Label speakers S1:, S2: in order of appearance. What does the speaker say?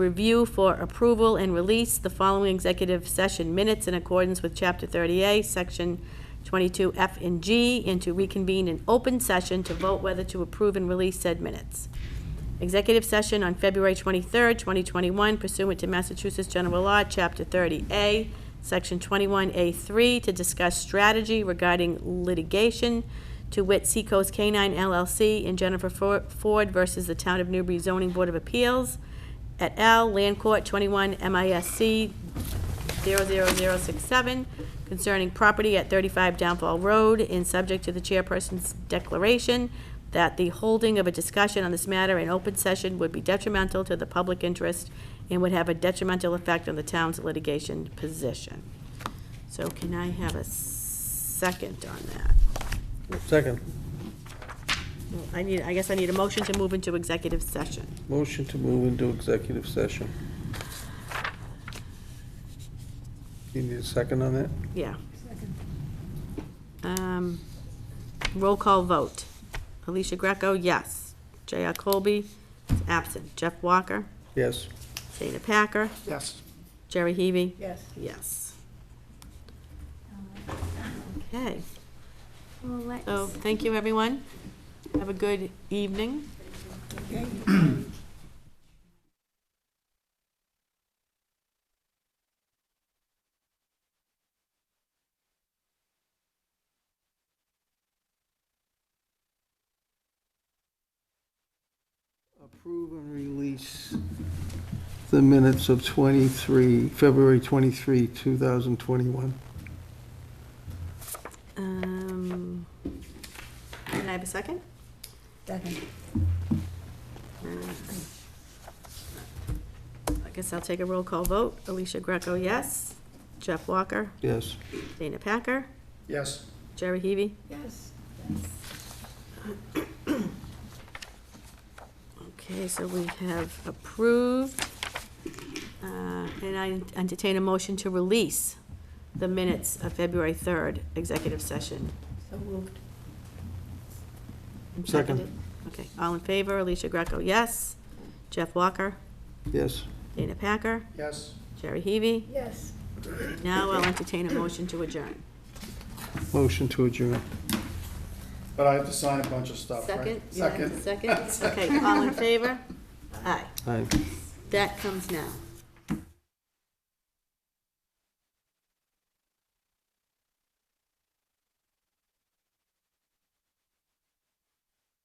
S1: Review for approval and release the following executive session minutes in accordance with Chapter 30A, Section 22F and G, and to reconvene in open session to vote whether to approve and release said minutes. Executive session on February 23rd, 2021 pursuant to Massachusetts General Law, Chapter 30A, Section 21A3, to discuss strategy regarding litigation, to wit Seacoast K-9 LLC and Jennifer For- Ford versus the Town of Newbury Zoning Board of Appeals et al., Land Court 21 MISC 00067, concerning property at 35 Downfall Road, and subject to the chairperson's declaration that the holding of a discussion on this matter in open session would be detrimental to the public interest and would have a detrimental effect on the town's litigation position. So can I have a second on that?
S2: Second,
S1: Well, I need, I guess I need a motion to move into executive session.
S2: motion to move into executive session. You need a second on that?
S1: Yeah. Um, Roll call vote. Alicia Greco, yes. J.R. Colby is absent. Jeff Walker,
S2: Yes.
S1: Dana Packer,
S3: Yes.
S1: Jerry Heavy,
S3: Yes.
S1: yes. Okay,
S4: Well, let's.
S1: so thank you, everyone. Have a good evening.
S2: Approve and release the minutes of 23, February 23, 2021.
S1: Um, Can I have a second? Uh,
S3: Second.
S1: I guess I'll take a roll call vote. Alicia Greco, yes. Jeff Walker,
S2: Yes.
S1: Dana Packer,
S3: Yes.
S1: Jerry Heavy,
S3: Yes.
S1: Okay, so we have approved, uh, and I entertain a motion to release the minutes of February 3rd, executive session.
S3: So moved.
S2: Second.
S1: Okay, all in favor, Alicia Greco, yes. Jeff Walker,
S2: Yes.
S1: Dana Packer,
S3: Yes.
S1: Jerry Heavy.
S3: Yes.
S1: Now I'll entertain a motion to adjourn.
S2: Motion to adjourn.
S3: But I have to sign a bunch of stuff, right?
S1: Second? Yeah, Second? Okay, all in favor? Aye.
S2: Aye.
S1: That comes now.